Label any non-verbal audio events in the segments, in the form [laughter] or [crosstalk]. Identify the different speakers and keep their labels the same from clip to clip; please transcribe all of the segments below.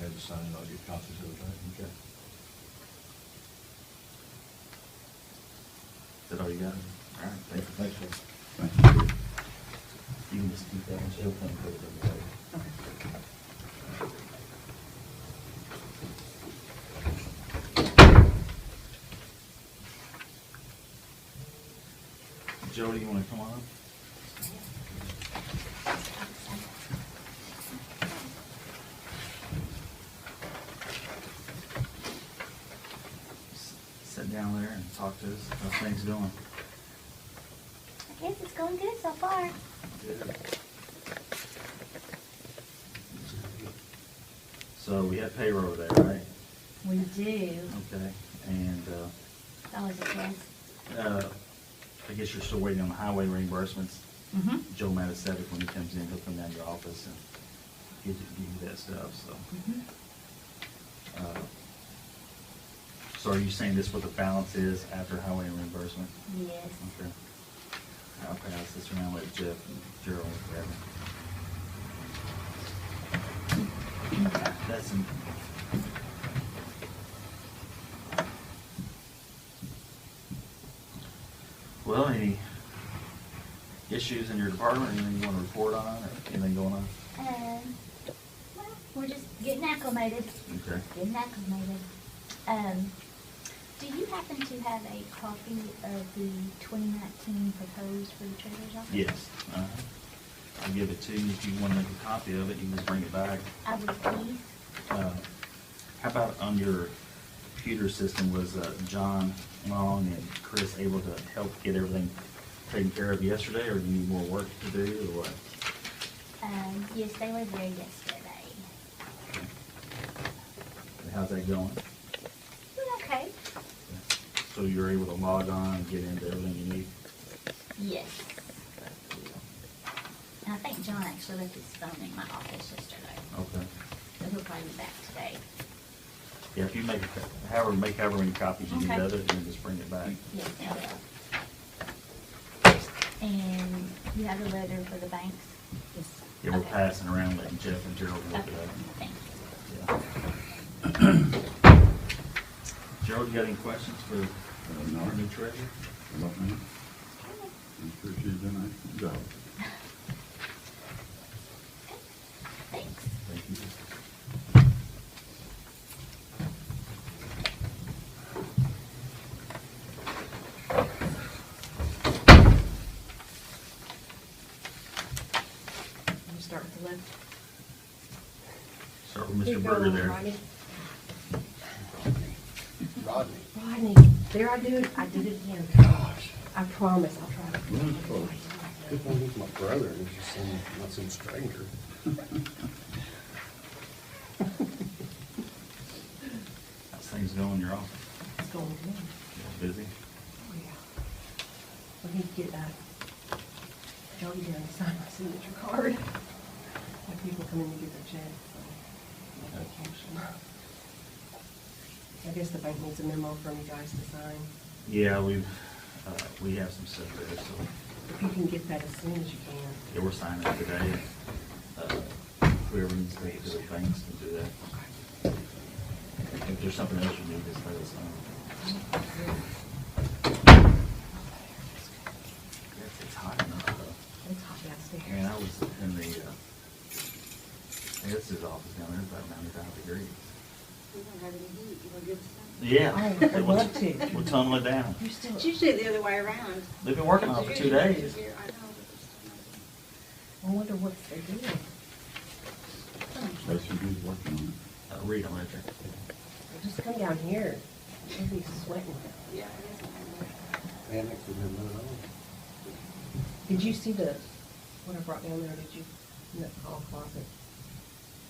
Speaker 1: have it signed, I'll get copies of it, right?
Speaker 2: Okay. Is that all you got? All right, thank you.
Speaker 1: Thanks, sir.
Speaker 2: You can just keep that one, she'll come put it in the paper. Jody, you wanna come on up? S- Sit down there and talk to us, how things going?
Speaker 3: I guess it's going good so far.
Speaker 2: So we had payroll there, right?
Speaker 3: We do.
Speaker 2: Okay, and, uh,
Speaker 3: That was a chance.
Speaker 2: uh, I guess you're still waiting on the highway reimbursements.
Speaker 3: Mm-hmm.
Speaker 2: Joe Matasevic, when he comes in, he'll come down to your office and give you, give you that stuff, so.
Speaker 4: Mm-hmm.
Speaker 2: uh, So are you saying this what the balance is after highway reimbursement?
Speaker 3: Yes.
Speaker 2: Okay. I'll pass this around with Jeff and Gerald and whatever. That's an. Well, any issues in your department, anything you wanna report on, or anything going on?
Speaker 3: Um, well, we're just getting acclimated.
Speaker 2: Okay.
Speaker 3: Getting acclimated. Um, do you happen to have a copy of the twenty nineteen proposed for the treasurer's office?
Speaker 2: Yes. uh-huh. I'll give it to you, if you wanna make a copy of it, you can just bring it back.
Speaker 3: I would please.
Speaker 2: Uh, How about on your computer system, was uh, John Long and Chris able to help get everything taken care of yesterday, or do you need more work to do, or what?
Speaker 3: Um, yes, they were there yesterday.
Speaker 2: And How's that going?
Speaker 3: We're okay.
Speaker 2: So you're able to log on and get into everything you need?
Speaker 3: Yes. And I think John actually left his phone in my office yesterday.
Speaker 2: Okay.
Speaker 3: So he'll probably be back today.
Speaker 2: Yeah, if you make, however, make however many copies you need
Speaker 3: Okay.
Speaker 2: of it, and just bring it back.
Speaker 3: Yes, I will. And you have a letter for the banks? Yes.
Speaker 2: Yeah, we're
Speaker 3: Okay.
Speaker 2: passing around, letting Jeff and Gerald look
Speaker 3: Okay,
Speaker 2: it up.
Speaker 3: thanks.
Speaker 2: Yeah. Gerald, you got any questions for
Speaker 5: Uh, no,
Speaker 2: our new
Speaker 5: I
Speaker 2: treasurer?
Speaker 5: love me. I'm sure she's done a nice job. [laughs]
Speaker 3: Thanks.
Speaker 2: Thank you.
Speaker 4: You start with the left.
Speaker 2: Start with Mr.
Speaker 4: Keep
Speaker 2: Berger
Speaker 4: going,
Speaker 2: there.
Speaker 4: Rodney.
Speaker 1: Rodney.
Speaker 4: Rodney, there I do it, I did it again.
Speaker 6: Gosh,
Speaker 4: I promise I'll try. to-
Speaker 5: Really close.
Speaker 6: good one with my brother, and he's just some, not some stranger.
Speaker 2: How's things going in your office?
Speaker 4: It's going good.
Speaker 2: Busy?
Speaker 4: Oh, yeah. We need to get, uh, Jody down to sign my signature card. When people come in to get their check, so. make an occasion. I guess the bank needs a memo from you guys to sign.
Speaker 2: Yeah, we've, uh, we have some stuff there, so,
Speaker 4: If you can get that as soon as you can.
Speaker 2: yeah, we're signing it today. Uh, Whoever needs to take to the banks can do that. If there's something else you need, just let us know. Yes, It's hot enough, though.
Speaker 4: It's hot downstairs.
Speaker 2: Man, I was in the, uh, I guess his office down there, about ninety-five degrees.
Speaker 7: We don't have any heat, you wanna give us some?
Speaker 2: Yeah.
Speaker 4: Oh, I'd love to.
Speaker 2: We'll tunnel it down.
Speaker 4: You're still.
Speaker 7: It's usually the other way around.
Speaker 2: They've been working on it for two days.
Speaker 7: Here, I know, but there's still
Speaker 4: I
Speaker 7: not-
Speaker 4: wonder what they're doing.
Speaker 5: So she's working on it.
Speaker 2: Uh, Read on it.
Speaker 4: Just come down here. You'll be sweating.
Speaker 7: Yeah, I guess I have.
Speaker 6: Man, that could have been none at all.
Speaker 4: Did you see the, what I brought down there, did you, in that hall closet?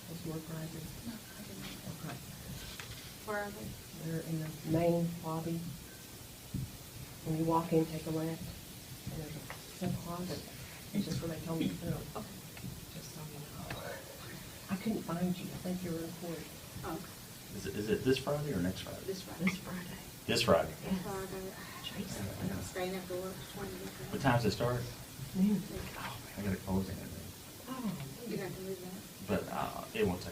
Speaker 4: Those work risers?
Speaker 7: No, I didn't.
Speaker 4: Okay.
Speaker 7: Where are they?
Speaker 4: They're in the main lobby. When you walk in, take a left, and there's a sub closet. It's just where they told me to go.
Speaker 7: Okay.
Speaker 4: Just so you know. I couldn't find you. I think you were in court.
Speaker 7: Oh,
Speaker 2: Is it, is it this Friday or next Friday?
Speaker 7: this Friday.
Speaker 4: This Friday.
Speaker 2: This Friday.
Speaker 4: Yes.
Speaker 7: Sorry,
Speaker 4: Tracy.
Speaker 7: I got, staying after work, twenty minutes.
Speaker 2: What time's it start?
Speaker 4: Noon.
Speaker 2: Oh, man, I gotta close it.
Speaker 4: Oh. 嗯
Speaker 7: You're not gonna move that?
Speaker 2: But, uh, it won't take